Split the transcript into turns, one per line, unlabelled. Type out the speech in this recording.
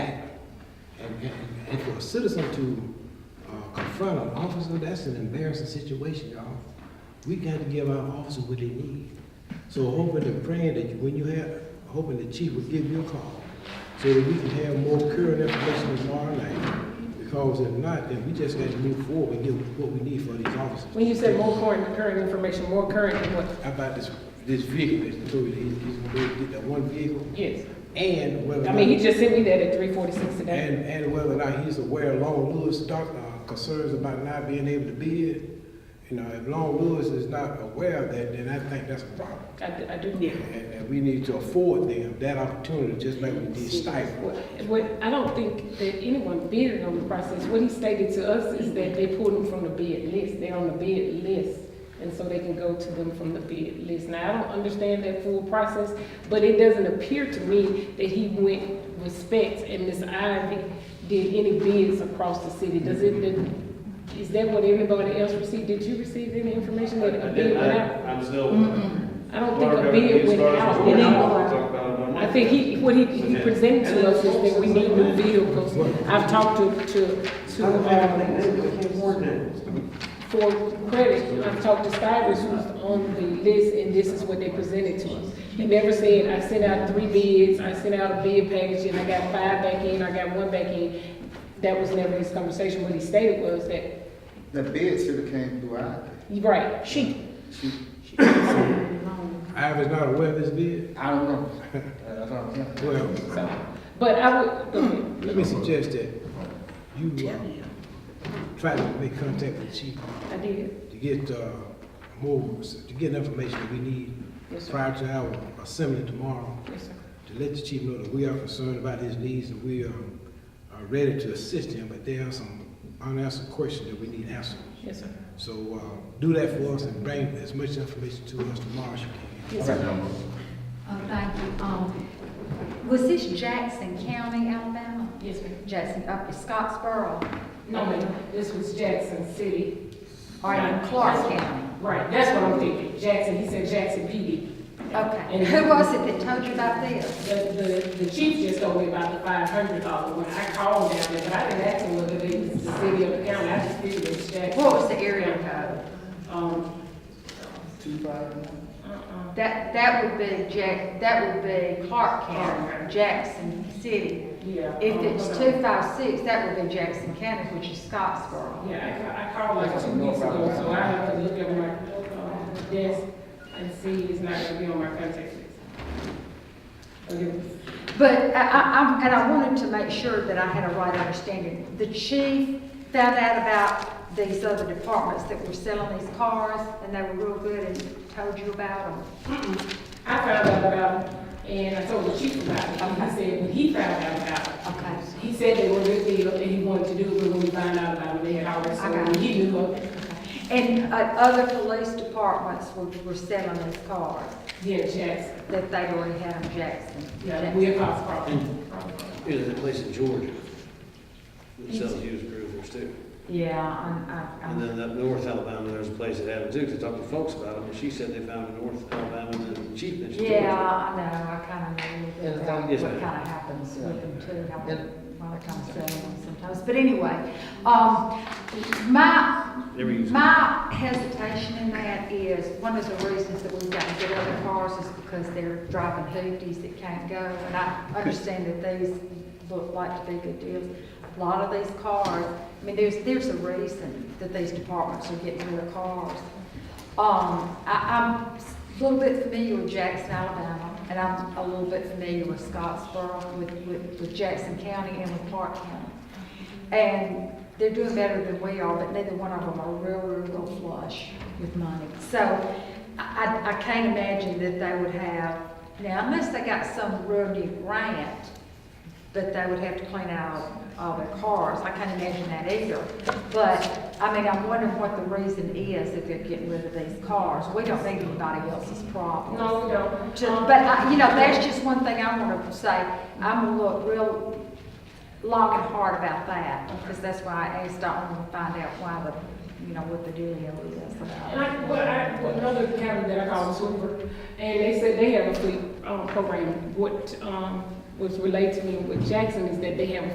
a citizen to uh, confront an officer, that's an embarrassing situation, y'all. We got to give our officers what they need. So hoping and praying that when you have, hoping the chief will give you a call so that we can have more current information tomorrow night. Because if not, then we just got to move forward and get what we need for these officers.
When you said more current, current information, more current than what?
How about this, this vehicle that's told he's, he's gonna go get that one vehicle
Yes.
and whether. or
I mean, he
not-
just sent me that at three forty-six today.
And, and whether or not he's aware of Long Lewis' doc, uh, concerns about not being able to bid, you know, if Long Lewis is not aware of that, then I think that's a problem.
I, d- I do. Yeah.
And, and we need to afford them that opportunity, just like we did stifle.
What, I don't think that anyone bidded on the process. What he stated to us is that they pulled them from the bid list. They're on the bid list. And so they can go to them from the bid list. Now, I don't understand that full process, but it doesn't appear to me that he went with specs and Ms. Ivy did any bids across the city. Does it, did- is that what everybody else received? Did you receive any information that a bid went out?
I'm still.
I don't think a bid went out.
We're not gonna
It ain't-
talk about it on
uh, I
Monday.
think he, what he, he presented to us is that we need new vehicles. I've talked to, to, to, um, for credit, I've talked to Stivers who's on the list, and this is what they presented to us. He never said, I sent out three bids, I sent out a bid package, and I got five back in, I got one back in. That was never his conversation. What he stated was that,
The bid should have came through I.
you're right, she,
She,
I was not aware of this bid.
I don't know. I don't know.
Well,
so, but I would, go ahead.
let me suggest that you, uh, try to make contact with Chief
I did,
to get, uh, more, to get information that we need
yes, sir,
prior to our assembly tomorrow.
yes, sir.
to let the chief know that we are concerned about his needs and we are, are ready to assist him, but there are some unanswered questions that we need answered.
Yes, sir.
So, uh, do that for us and bring as much information to us tomorrow as you can.
Yes, sir.
Oh, thank you. Um, was this Jackson County, Alabama?
Yes, ma'am.
Jackson, up in Scottsboro,
No, ma'am, this was Jackson City.
or in Clark County?
Right, that's what I'm thinking, Jackson, he said Jackson PD.
Okay. Who was it that told you about this?
The, the, the chief just told me about the five hundred dollar one, I called down there, but I didn't ask him whether it was the city or the county, I just figured it was Jackson.
What was the area code?
Um,
Two five nine.
uh-uh,
That, that would be Jack, that would be Clark County, Jackson City.
yeah.
If
um,
it's
hold on.
two five six, that would be Jackson County, which is Scottsboro.
Yeah, I, ca- I called like two weeks ago, so I have to look at my, um, desk and see it's not gonna be on my contact list. Okay.
But I, I, I'm- and I wanted to make sure that I had a right understanding. The chief found out about these other departments that were selling these cars, and they were real good and told you about them.
I found out about it, and I told the chief about it, and he said, when he found out about it,
Okay.
he said they were with me, and he wanted to do it, but when we found out about it, they had already sold, it. he knew of it.
And uh, other police departments were, were selling these cars
Yeah, Jackson,
that they already had in Jackson.
yeah,
Jackson.
we across property.
You know, that place in Georgia that sells used groovers too.
Yeah, I, I,
And then up north Alabama, there's a place that had them too, 'cause I talked to folks about them, and she said they found in North Alabama, and the chief mentioned. Georgia.
yeah, I know, I kind of know
Yeah,
what
it's
kind
like-
of
Yes, ma'am.
happens with them too, how,
Yeah.
why they come selling them sometimes. But anyway, um, my,
Never use it.
my hesitation in that is, one of the reasons that we've got to get other cars is because they're driving hoopties that can't go. And I understand that these look like to be good deals. A lot of these cars, I mean, there's, there's a reason that these departments are getting rid of cars. Um, I, I'm a little bit familiar with Jackson, Alabama, and I'm a little bit familiar with Scottsboro, with, with, with Jackson County and with Clark County. And they're doing better than we are, but neither one of them are real, real flush with money. So I, I- I can't imagine that they would have, now unless they got some real new grant, but they would have to clean out all their cars. I can't imagine that either. But, I mean, I'm wondering what the reason is that they're getting rid of these cars. We don't need anybody else's problem.
No, we don't.
Just-
Um,
But, I- you know, that's just one thing I want to say. I'm gonna look real long and hard about that, because that's why I asked, I want to find out why the, you know, what the dealio is
And
about.
I, well, I, well, another county that I called was Hoover, and they said they have a fleet, um, program. What, um, was relayed to me with Jackson is that they have a